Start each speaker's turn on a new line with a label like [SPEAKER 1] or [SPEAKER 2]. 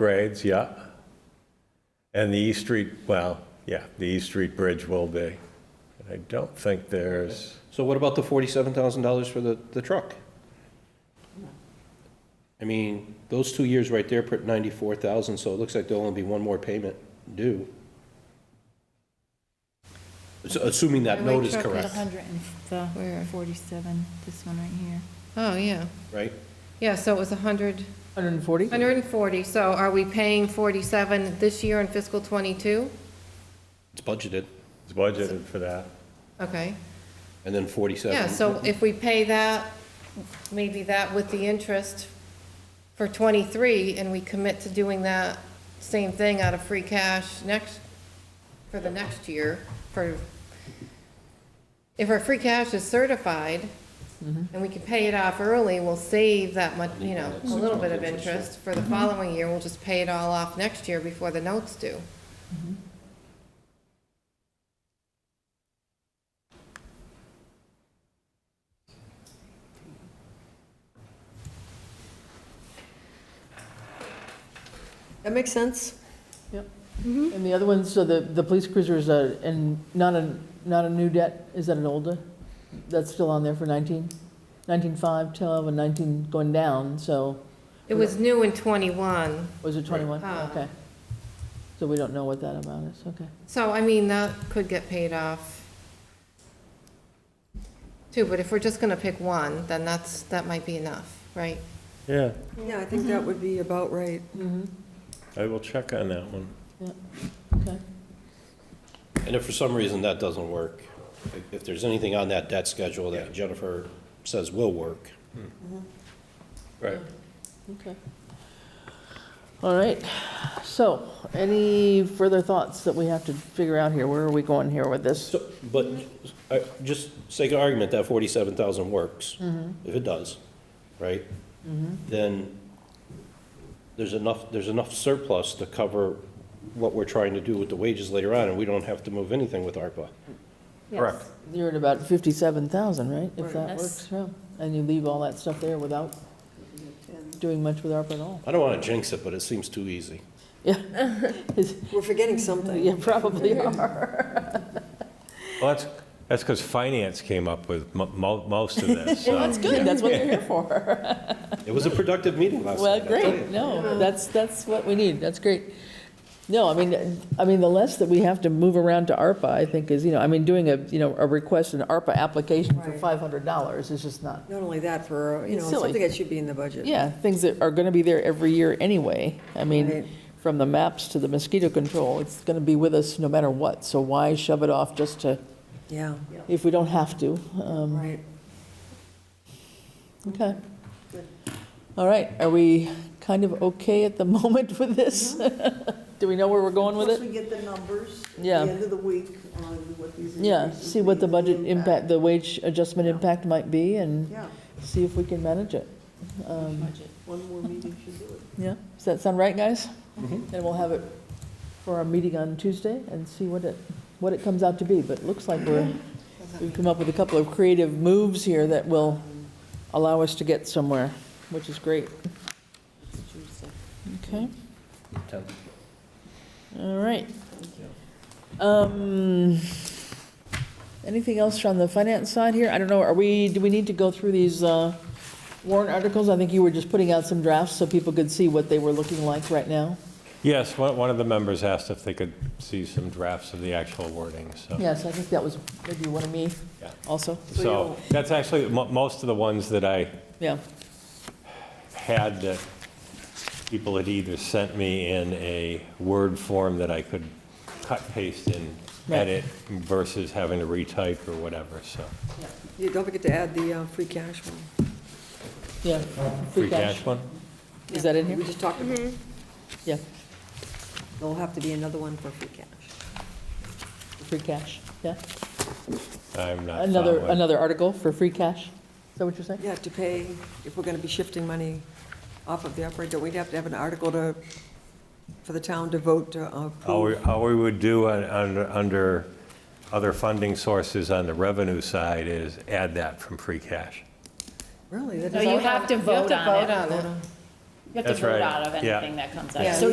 [SPEAKER 1] upgrades, yeah. And the East Street, well, yeah, the East Street Bridge will be. I don't think there's,
[SPEAKER 2] So what about the forty-seven thousand dollars for the, the truck? I mean, those two years right there put ninety-four thousand, so it looks like there'll only be one more payment due. So Assuming that
[SPEAKER 3] Highway
[SPEAKER 2] note is
[SPEAKER 3] truck at
[SPEAKER 2] correct,
[SPEAKER 3] 100 and the
[SPEAKER 4] Where?
[SPEAKER 3] 47, this one right here.
[SPEAKER 4] Oh, yeah.
[SPEAKER 2] right?
[SPEAKER 4] Yeah, so it was 100,
[SPEAKER 5] 140?
[SPEAKER 4] 140. So are we paying 47 this year in fiscal '22?
[SPEAKER 2] It's budgeted,
[SPEAKER 1] it's budgeted for that.
[SPEAKER 4] Okay.
[SPEAKER 2] and then forty-seven.
[SPEAKER 4] Yeah, so if we pay that, maybe that with the interest for '23, and we commit to doing that same thing out of free cash next, for the next year, for, if our free cash is certified, and we can pay it off early, we'll save that much, you know, a little bit of interest for the following year, we'll just pay it all off next year before the notes due.
[SPEAKER 5] That makes sense. Yep. And the other one, so the, the police cruiser is a, and not a, not a new debt, is that an older? That's still on there for 19, 19.5, 12, and 19 going down, so
[SPEAKER 4] It was new in '21,
[SPEAKER 5] was it 21?
[SPEAKER 4] Ah.
[SPEAKER 5] Okay. So we don't know what that amount is, okay.
[SPEAKER 4] So, I mean, that could get paid off too, but if we're just gonna pick one, then that's, that might be enough, right?
[SPEAKER 1] Yeah,
[SPEAKER 6] Yeah, I think
[SPEAKER 5] Mm-hmm.
[SPEAKER 6] that would be about right.
[SPEAKER 1] I will check on that one.
[SPEAKER 5] Okay.
[SPEAKER 2] And if for some reason that doesn't work, if- if there's anything on that debt schedule that Jennifer says will work,
[SPEAKER 1] Right.
[SPEAKER 5] Okay. All right, so any further thoughts that we have to figure out here? Where are we going here with this?
[SPEAKER 2] So, but, uh, just sake of argument, that forty-seven thousand works,
[SPEAKER 5] Mm-hmm.
[SPEAKER 2] if it does, right? Then there's enough, there's enough surplus to cover what we're trying to do with the wages later on, and we don't have to move anything with ARPA. Correct.
[SPEAKER 5] You're at about 57,000, right? If that
[SPEAKER 3] Yes.
[SPEAKER 5] works, yeah. And you leave all that stuff there without doing much with ARPA at all?
[SPEAKER 2] I don't wanna jinx it, but it seems too easy.
[SPEAKER 5] Yeah.
[SPEAKER 6] We're forgetting
[SPEAKER 5] Mm-hmm.
[SPEAKER 6] something.
[SPEAKER 5] You probably are.
[SPEAKER 1] Well, that's, that's because finance came up with mo- mo- most of this, so.
[SPEAKER 5] That's good, that's what they're here for.
[SPEAKER 2] It was a productive meeting last
[SPEAKER 5] Well,
[SPEAKER 2] night. I'll tell
[SPEAKER 5] great,
[SPEAKER 2] you.
[SPEAKER 5] no, that's, that's what we need, that's great. No, I mean, I mean, the less that we have to move around to ARPA, I think is, you know, I mean, doing a, you know, a request, an ARPA application for
[SPEAKER 6] Right.
[SPEAKER 5] $500 is just not,
[SPEAKER 6] Not only that, for, you
[SPEAKER 5] It's
[SPEAKER 6] know,
[SPEAKER 5] silly.
[SPEAKER 6] something that should be in the budget.
[SPEAKER 5] yeah, things that are going to be there every year anyway. I mean,
[SPEAKER 6] Right.
[SPEAKER 5] from the maps to the mosquito control, it's going to be with us no matter what, so why shove it off just to,
[SPEAKER 6] Yeah,
[SPEAKER 5] if we don't have to? Um,
[SPEAKER 6] right.
[SPEAKER 5] Okay. All right, are we kind of okay at the moment with this? Do we know where we're going with
[SPEAKER 7] Once
[SPEAKER 5] it?
[SPEAKER 7] we get the numbers at the
[SPEAKER 5] Yeah.
[SPEAKER 7] end of the week on what these.
[SPEAKER 5] Yeah,
[SPEAKER 7] increases
[SPEAKER 5] see what
[SPEAKER 7] be
[SPEAKER 5] the
[SPEAKER 7] and
[SPEAKER 5] budget impact, the wage adjustment impact might be and
[SPEAKER 7] Yeah,
[SPEAKER 5] see if we can manage it. Um,
[SPEAKER 7] one more meeting should do it.
[SPEAKER 5] Yeah, does that sound right, guys? And we'll have it for our meeting on Tuesday and see what it, what it comes out to be. But it looks like we're, we've come up with a couple of creative moves here that will allow us to get somewhere, which is great. Okay. All right. Um, Anything else from the finance side here? I don't know, are we, do we need to go through these uh, warrant articles? I think you were just putting out some drafts so people could see what they were looking like right now.
[SPEAKER 1] Yes, one one of the members asked if they could see some drafts of the actual wording, so.
[SPEAKER 5] Yes, I think that was maybe one of me
[SPEAKER 1] Yeah.
[SPEAKER 5] also.
[SPEAKER 1] So that's actually, mo- most of the ones that I
[SPEAKER 5] Yeah,
[SPEAKER 1] had that people had either sent me in a Word form that I could cut, paste, and
[SPEAKER 5] Right.
[SPEAKER 1] edit versus having to retype or whatever, so.
[SPEAKER 6] You don't forget to add the uh, free cash one.
[SPEAKER 5] yeah.
[SPEAKER 1] Free cash one?
[SPEAKER 5] Is that in
[SPEAKER 6] We
[SPEAKER 5] here?
[SPEAKER 6] just talked about, it.
[SPEAKER 5] Yeah,
[SPEAKER 7] Mm-hmm.
[SPEAKER 6] there'll have to be another one for free cash.
[SPEAKER 5] free cash, yeah.
[SPEAKER 1] I'm not
[SPEAKER 5] Another,
[SPEAKER 1] following.
[SPEAKER 5] another article for free cash? Is that what you're saying?
[SPEAKER 6] Yeah, to pay, if we're going to be shifting money off of the operator, we'd have to have an article to, for the town to vote to
[SPEAKER 1] How we,
[SPEAKER 6] approve.
[SPEAKER 1] how we would do on- under, under other funding sources on the revenue side is add that from free cash.
[SPEAKER 6] Really? that
[SPEAKER 3] No,
[SPEAKER 6] is-
[SPEAKER 3] you have to vote on it.
[SPEAKER 4] vote on it.
[SPEAKER 3] You have to
[SPEAKER 1] That's
[SPEAKER 3] vote
[SPEAKER 1] right.
[SPEAKER 3] out of
[SPEAKER 1] Yeah.
[SPEAKER 3] anything that comes out.
[SPEAKER 4] Yeah.
[SPEAKER 3] So